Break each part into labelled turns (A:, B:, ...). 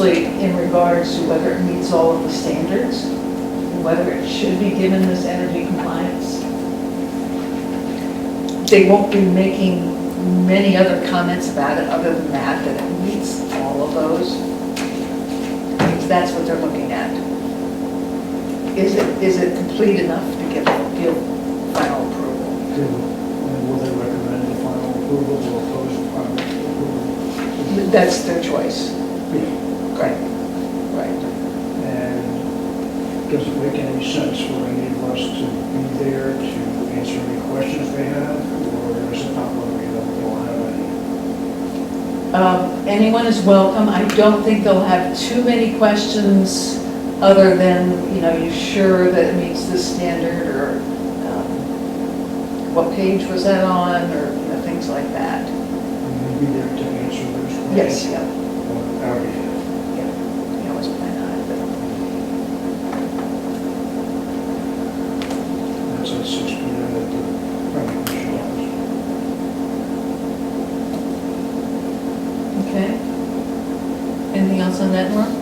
A: Actually, in regards to whether it meets all of the standards, and whether it should be given this energy compliance. They won't be making many other comments about it other than that, that it meets all of those. Because That's what they're looking at. Is it, is it complete enough to give, give final approval?
B: Do, and will they recommend the final approval or oppose the final approval?
A: That's their choice.
B: Yeah,
A: Right. Right.
B: And doesn't make any sense for any of us to be there to answer any questions they have, or is it not going to be that they'll have any?
A: Um, Anyone is welcome. I don't think they'll have too many questions other than, you know, you sure that it meets this standard or um, what page was that on or, you know, things like that.
B: Will you be there to answer those questions?
A: Yes, yeah,
B: Or Out of here.
A: yeah. You always plan on it,
B: That's at six P M at the planning commission office.
A: but- okay. Anything else on that, Mark?
B: No.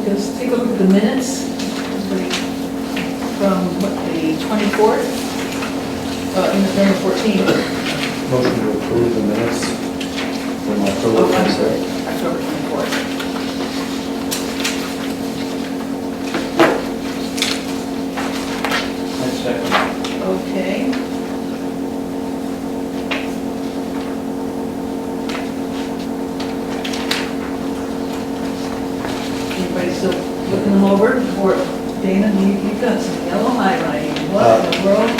A: Okay, let's take a look at the minutes from what, the 24th, uh, in the 14th.
C: Motion to approve the minutes from October
A: Oh, I'm sorry,
C: 26th.
A: October 24th.
B: I second.
A: Okay. Anybody still looking them over? Or Dana, you- you've got some yellow highlighting. What in the world?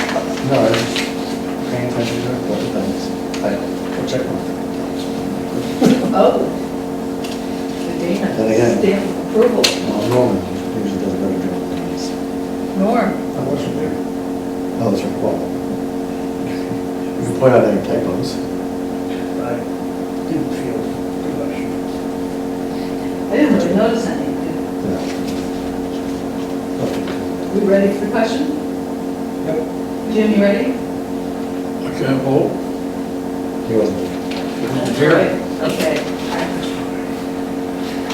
C: No, I was paying attention to a couple things. I, I'll check one.
A: Oh. The Dana.
C: Then again.
A: Stamp of approval.
C: Well, Norman usually does a better job than this.
A: Norm.
B: I wasn't there.
C: Oh, that's right, well. You can point out any typos.
B: I didn't feel the rush.
A: I didn't really notice any.
C: Yeah.
A: We ready for the question?
B: Yep.
A: Jim, you ready?
D: I can't vote.
C: He wasn't.
A: Okay.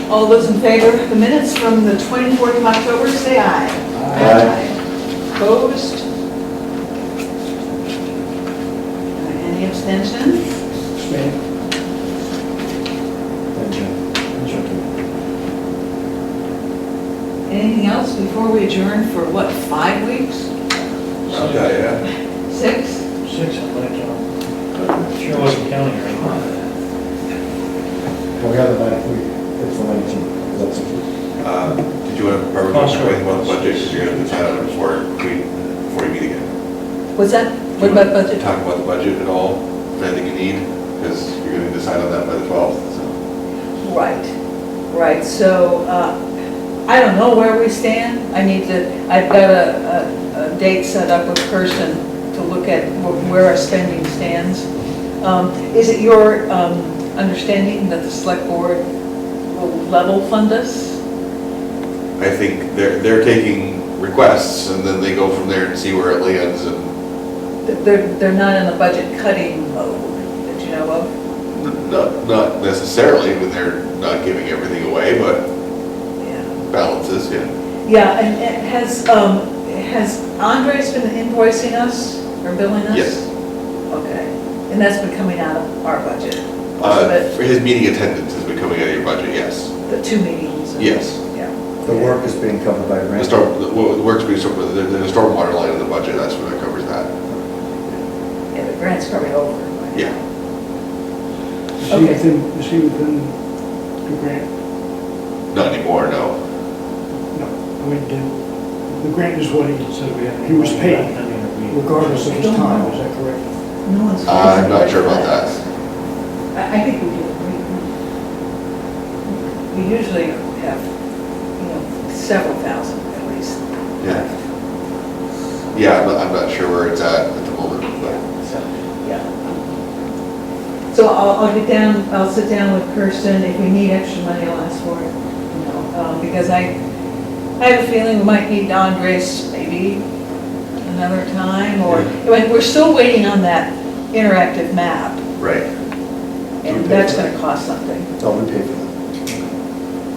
A: All those in favor of the minutes from the 24th of October, say aye.
C: Aye.
A: Opposed? Any abstentions?
B: Stand.
C: Thank you.
A: Anything else before we adjourn for what, five weeks?
D: Yeah,
A: Six?
B: Six, I'd like to.
E: Sure wasn't counting or anything.
C: Well, we have the ninth week, it's the 19th, that's it.
D: yeah. Uh, Did you want to, are we going to wait one budget, because you're going to decide on it before we, before you meet again?
A: What's that? What about budget?
D: Talk about the budget at all, if anything you need, because you're going to decide on that by the 12th, so.
A: Right, right, so, uh, I don't know where we stand, I need to, I've got a, a, a date set up with Kirsten to look at wh- where our spending stands. Um, is it your, um, understanding that the select board will level fund us?
D: I think they're, they're taking requests, and then they go from there and see where it lands, and,
A: That They're, they're not in the budget cutting mode, that you know of?
D: n- not, not necessarily, but they're not giving everything away, but
A: Yeah.
D: balances, yeah.
A: Yeah, and, and has, um, has Andres been invoicing us or billing us?
D: Yes.
A: Okay, and that's been coming out of our budget, most of
D: Uh,
A: it,
D: For his meeting attendance has been coming out of your budget, yes.
A: the two meetings. and-
D: Yes.
A: Yeah.
C: The work is being covered by
D: The
C: grant.
D: storm, the well, the works being, sort of- there- there's a stormwater line in the budget, that's what that covers that.
A: Yeah, the grant's probably over. right?
D: Yeah.
B: Is he
A: Okay.
B: within, is he within the grant?
D: Not anymore, no.
B: No, I mean, the, the grant is what he, he was paid regardless of his time, is that correct?
A: No one's.
D: I'm not sure about that.
A: I, I think we do, we, we usually have, you know, several thousand at least.
D: Yeah. Yeah, I'm not, I'm not sure where it's at at the moment, but
A: So, yeah. So I'll, I'll get down, I'll sit down with Kirsten, if we need extra money, I'll ask for it, you know, um, because I, I have a feeling we might need Andres maybe another time, or, like, we're still waiting on that interactive map,
D: Right.
A: and that's gonna cost something.
C: It's all we paid for.